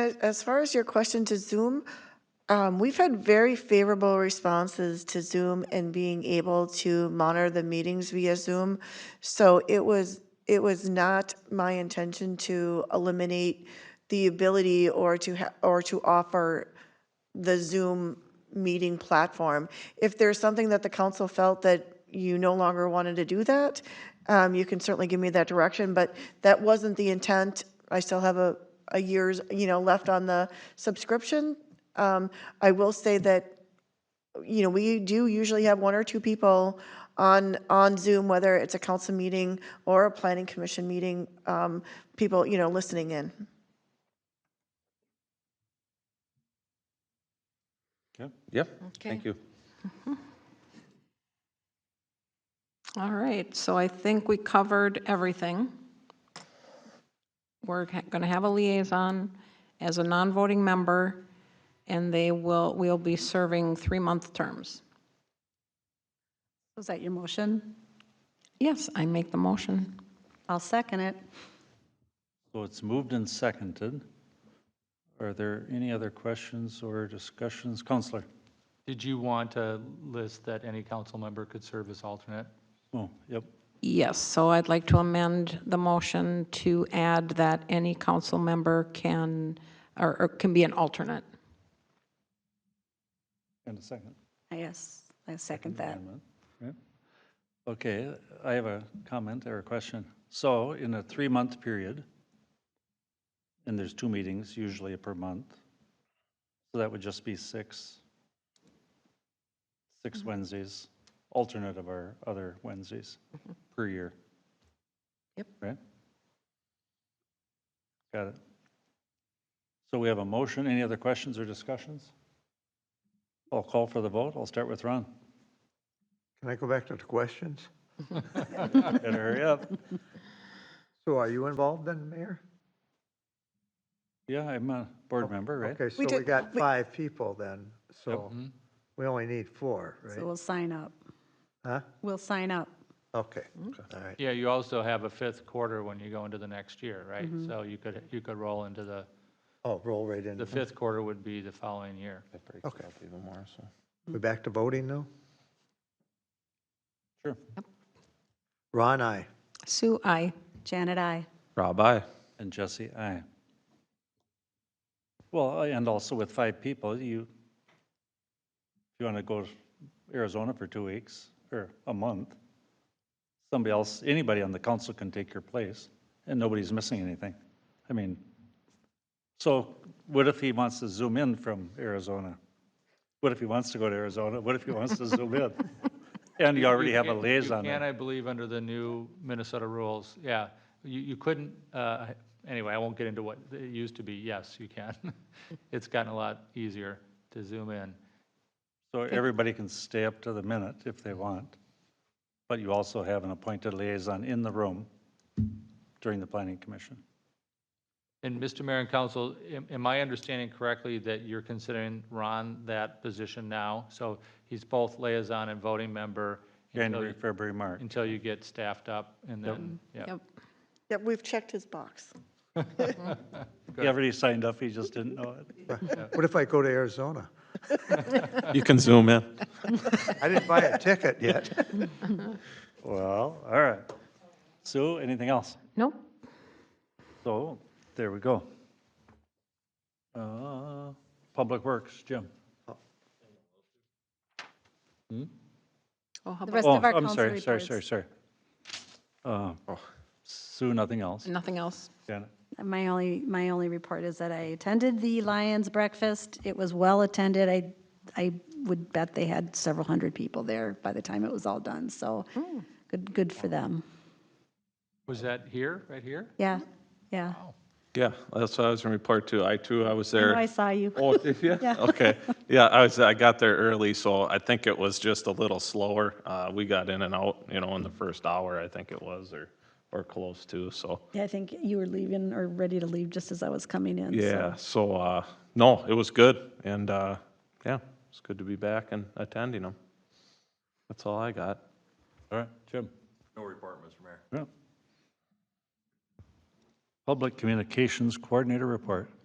As- As far as your question to Zoom, um, we've had very favorable responses to Zoom and being able to monitor the meetings via Zoom. So it was, it was not my intention to eliminate the ability or to, ha- or to offer the Zoom meeting platform. If there's something that the council felt that you no longer wanted to do that, um, you can certainly give me that direction, but that wasn't the intent. I still have a, a year's, you know, left on the subscription. Um, I will say that you know, we do usually have one or two people on, on Zoom, whether it's a council meeting or a planning commission meeting, um, people, you know, listening in. Yeah, yeah, thank Okay. you. All right, so I think we covered everything. We're going to have a liaison as a non-voting member, and they will, we'll be serving three-month terms. Was that your motion? Yes, I make the motion. I'll second it. So it's moved and seconded. Are there any other questions or discussions? Counselor? Did you want to list that any council member could serve as alternate? Oh, yep. Yes, so I'd like to amend the motion to add that any council member can, or or can be an alternate. And a second. Yes, I second that. amendment, right? Okay, I have a comment or a question. So in a three-month period, and there's two meetings usually per month, so that would just be six, six Wednesdays, alternate of our other Wednesdays per year. Yep. Right? Got it. So we have a motion. Any other questions or discussions? I'll call for the vote. I'll start with Ron. Can I go back to the questions? Better hurry up. So are you involved then, Mayor? Yeah, I'm a board member, right? Okay, so we did- got we- five people then, so Mm-hmm. we only need four, So right? we'll sign up. Huh? We'll sign up. Okay, all right. Yeah, you also have a fifth quarter when you go into the next year, right? So you could, you could roll into the, Oh, roll right in. the fifth quarter would be the following year. Okay. We back to voting now? Sure. Ron, I. Sue, I. Janet, I. Rob, I. And Jesse, aye. Well, I- and also with five people, you, if you want to go to Arizona for two weeks or a month, somebody else, anybody on the council can take your place and nobody's missing anything. I mean, so what if he wants to zoom in from Arizona? What if he wants to go to Arizona? What if he wants to zoom in? And you already have a can't- liaison You can, there. I believe, under the new Minnesota rules, yeah. You, you couldn't, uh, anyway, I won't get into what it used to be. Yes, you can. It's gotten a lot easier to zoom in. So everybody can stay up to the minute if they want, but you also have an appointed liaison in the room during the planning commission. And Mr. Mayor and Council, am- am I understanding correctly that you're considering Ron that position now? So he's both liaison and voting member until January, you- February, March. until you get staffed up and then, yeah. Yep. Yeah, we've checked his box. He already signed up, he just didn't know it. What if I go to Arizona? You can zoom in. I didn't buy a ticket yet. Well, all right. Sue, anything else? Nope, So, there we go. Uh, Public Works, Jim. oh, how The about, rest Oh, of our I'm council sorry, sorry, reports. sorry, sorry. Uh, Sue, nothing else? nothing else? Janet? My only, my only report is that I attended the Lions Breakfast. It was well-attended. I, I would bet they had several hundred people there by the time it was all done, so Hmm. good, good for them. Was that here, right here? Yeah, yeah. Yeah, that's what I was gonna report too. I too, I was I there. know I saw you. Oh, did you? Okay. Yeah, I was, I got there early, so I think it was just a little slower. Uh, we got in and out, you know, in the first hour, I think it was, or, or close to, so. Yeah, I think you were leaving or ready to leave just as I was coming in, so. Yeah, so, uh, no, it was good. And, uh, yeah, it's good to be back and attending them. That's all I got. All right, Jim? No report, Mr. Mayor. Public Communications Coordinator report.